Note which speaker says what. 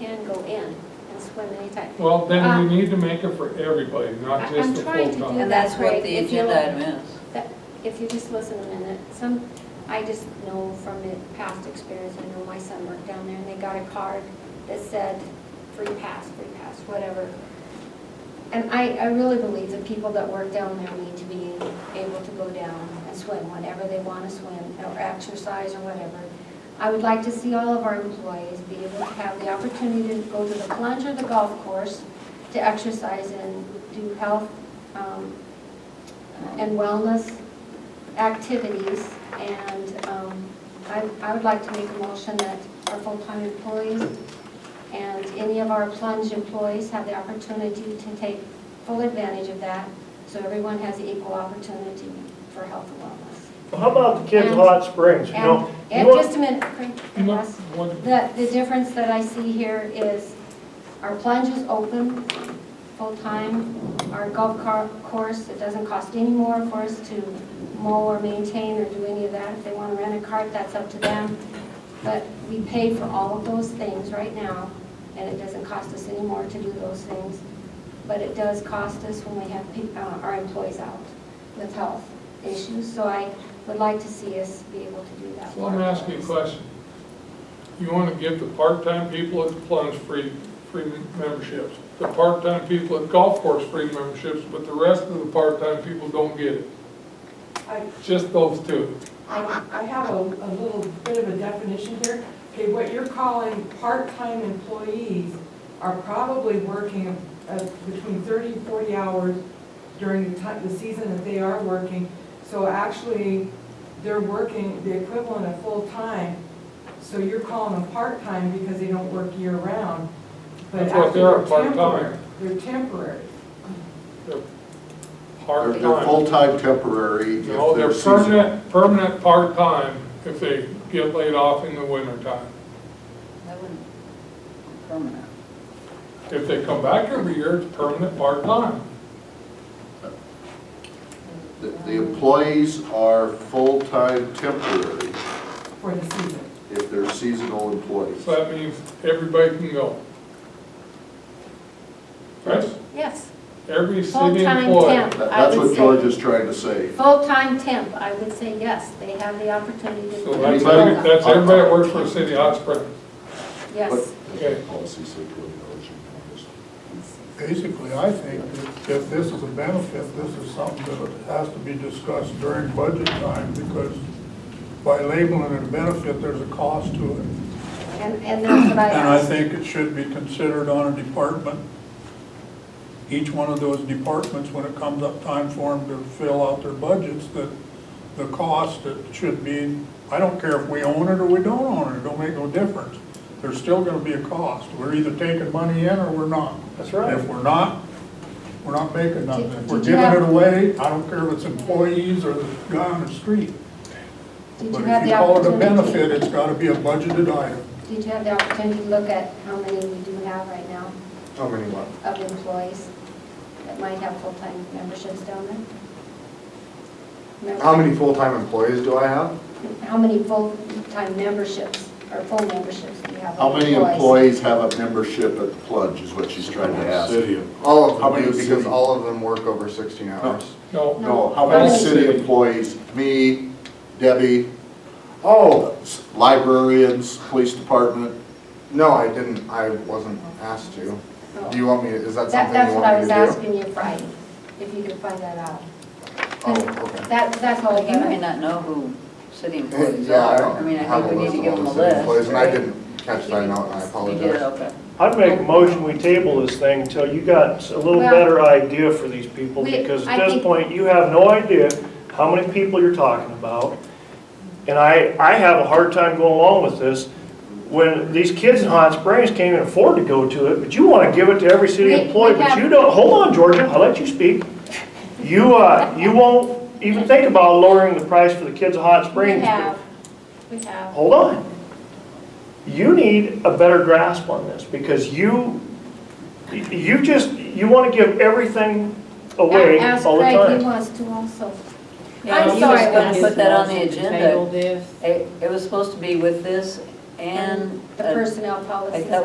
Speaker 1: in and swim anytime.
Speaker 2: Well, then
Speaker 1: Uh,
Speaker 2: we need to make it for everybody,
Speaker 1: I-
Speaker 2: not just
Speaker 1: I'm
Speaker 2: the
Speaker 1: trying to do
Speaker 2: full-time.
Speaker 1: that.
Speaker 3: And that's what
Speaker 1: Right,
Speaker 3: the
Speaker 1: if you
Speaker 3: agenda
Speaker 1: like.
Speaker 3: item is.
Speaker 1: That, if you just listen a minute, some, I just know from the past experience, I know my son worked down there and they got a card that said free pass, free pass, whatever. And I, I really believe the people that work down there need to be able to go down and swim whenever they want to swim or exercise or whatever. I would like to see all of our employees be able to have the opportunity to go to the plunge or the golf course to exercise and do health, um, and wellness activities. And um, I I would like to make a motion that our full-time employees and any of our plunge employees have the opportunity to take full advantage of that, so everyone has equal opportunity for health and wellness.
Speaker 4: How about the kids of Hot Springs, you know?
Speaker 1: And-
Speaker 4: you
Speaker 1: And
Speaker 4: want-
Speaker 1: just a minute, Frank,
Speaker 2: You know,
Speaker 1: last-
Speaker 2: what-
Speaker 1: the, the difference that I see here is our plunge is open full-time, our golf car, course, it doesn't cost any more for us to mow or maintain or do any of that. If they want to rent a cart, that's up to them. But we pay for all of those things right now, and it doesn't cost us any more to do those things. But it does cost us when we have peop- uh, our employees out with health issues. So I would like to see us be able to do that.
Speaker 2: Well, let me ask you a question. You want to give the part-time people at the plunge free, free memberships, the part-time people at golf course free memberships, but the rest of the part-time people don't get it,
Speaker 5: I,
Speaker 2: just those two.
Speaker 5: I I have a, a little bit of a definition here. Okay, what you're calling part-time employees are probably working uh, between 30 and 40 hours during the time, the season that they are working. So actually, they're working the equivalent of full-time. So you're calling them part-time because they don't work year-round. But
Speaker 2: That's what
Speaker 5: actually,
Speaker 2: they are,
Speaker 5: they're
Speaker 2: part-time.
Speaker 5: temporary. They're temporary.
Speaker 6: They're, they're
Speaker 2: Part-time.
Speaker 6: full-time temporary if
Speaker 2: No, they're
Speaker 6: they're seasonal.
Speaker 2: permanent, permanent part-time if they get laid off in the wintertime.
Speaker 3: That wouldn't, permanent.
Speaker 2: If they come back every year, it's permanent part-time.
Speaker 6: The the employees are full-time temporary
Speaker 5: for the season.
Speaker 6: if they're seasonal employees.
Speaker 2: So that means everybody can go. Right?
Speaker 1: Yes.
Speaker 2: Every city
Speaker 1: Full-time
Speaker 2: employee.
Speaker 1: temp,
Speaker 6: That-
Speaker 1: I
Speaker 6: That's
Speaker 1: would
Speaker 6: what George
Speaker 1: say.
Speaker 6: is trying to say.
Speaker 1: Full-time temp, I would say yes, they have the opportunity to.
Speaker 2: So that's,
Speaker 6: Anybody?
Speaker 2: every- that's everybody that works for the city of Hot Springs.
Speaker 1: Yes,
Speaker 2: Okay.
Speaker 6: Policy said twenty dollars an
Speaker 7: Basically, I think that if this is a benefit, this is something that has to be discussed during budget time, because by labeling it a benefit, there's a cost to it.
Speaker 1: and, and that's what I
Speaker 7: And I
Speaker 1: asked.
Speaker 7: think it should be considered on a department, each one of those departments, when it comes up time for them to fill out their budgets, that the cost, it should be, I don't care if we own it or we don't own it, it don't make no difference. There's still gonna be a cost. We're either taking money in or we're not.
Speaker 4: That's right.
Speaker 7: If we're not, we're not making nothing.
Speaker 1: Did-
Speaker 7: If we're
Speaker 1: did you
Speaker 7: giving
Speaker 1: have-
Speaker 7: it away, I don't care if it's employees or the guy on the street.
Speaker 1: Did
Speaker 7: But
Speaker 1: you
Speaker 7: if
Speaker 1: have
Speaker 7: you
Speaker 1: the
Speaker 7: call it a benefit,
Speaker 1: opportunity?
Speaker 7: it's gotta be a budgeted item.
Speaker 1: Did you have the opportunity to look at how many we do have right now
Speaker 6: How many what?
Speaker 1: of employees that might have full-time memberships down there? Remember-
Speaker 6: full-time employees do I have?
Speaker 1: How many full-time memberships, or full memberships do you have?
Speaker 6: How many
Speaker 1: employees?
Speaker 6: employees have a membership at the plunge is what she's trying to ask.
Speaker 8: All of
Speaker 6: How
Speaker 8: them
Speaker 6: many
Speaker 8: do, because
Speaker 6: city-
Speaker 8: all of them work over 16 hours.
Speaker 2: No,
Speaker 6: No, how many city employees? Me, Debbie, oh, s- librarians, police department.
Speaker 8: No, I didn't, I wasn't asked to.
Speaker 1: Oh.
Speaker 8: Do you want me, to- is that
Speaker 1: That,
Speaker 8: something
Speaker 1: that's
Speaker 8: you
Speaker 1: what I
Speaker 8: want me
Speaker 1: was
Speaker 8: to do?
Speaker 1: asking you Friday, if you could find that out.
Speaker 8: Oh, okay.
Speaker 1: That, that's all I
Speaker 3: You may
Speaker 1: got.
Speaker 3: not know who city employees
Speaker 8: Yeah, I
Speaker 3: are.
Speaker 8: don't
Speaker 3: I mean, I
Speaker 8: have
Speaker 3: think we
Speaker 8: a
Speaker 3: need to
Speaker 8: list
Speaker 3: give
Speaker 8: of
Speaker 3: them a
Speaker 8: all the city employees,
Speaker 3: list,
Speaker 8: and I
Speaker 3: right?
Speaker 8: didn't catch that note, and I
Speaker 3: You did,
Speaker 8: apologize.
Speaker 3: okay.
Speaker 4: I'd make a motion, we table this thing until you got a little
Speaker 1: Well-
Speaker 4: better idea for these people,
Speaker 1: We-
Speaker 4: because
Speaker 1: I
Speaker 4: at this
Speaker 1: think-
Speaker 4: point, you have no idea how many people you're talking about. And I, I have a hard time going along with this. When these kids in Hot Springs can't even afford to go to it, but you want to give it to every city
Speaker 1: We- we
Speaker 4: employee, but
Speaker 1: have-
Speaker 4: you don't, hold on, Georgia, I'll let you speak. You, uh, you won't even think about lowering the price for the kids in Hot
Speaker 1: We
Speaker 4: Springs. but-
Speaker 1: have, we have.
Speaker 4: hold on. You need a better grasp on this, because you, you just, you want to give everything away
Speaker 1: Ask
Speaker 4: all the
Speaker 1: Craig, he
Speaker 4: time.
Speaker 1: wants to also.
Speaker 3: Yeah,
Speaker 1: I'm
Speaker 3: you
Speaker 1: sorry,
Speaker 3: just
Speaker 1: but-
Speaker 3: gonna put that on the agenda.
Speaker 9: Table this.
Speaker 3: It, it was supposed to be with this and.
Speaker 1: The
Speaker 3: uh,
Speaker 1: personnel
Speaker 3: I
Speaker 1: policies.
Speaker 3: thought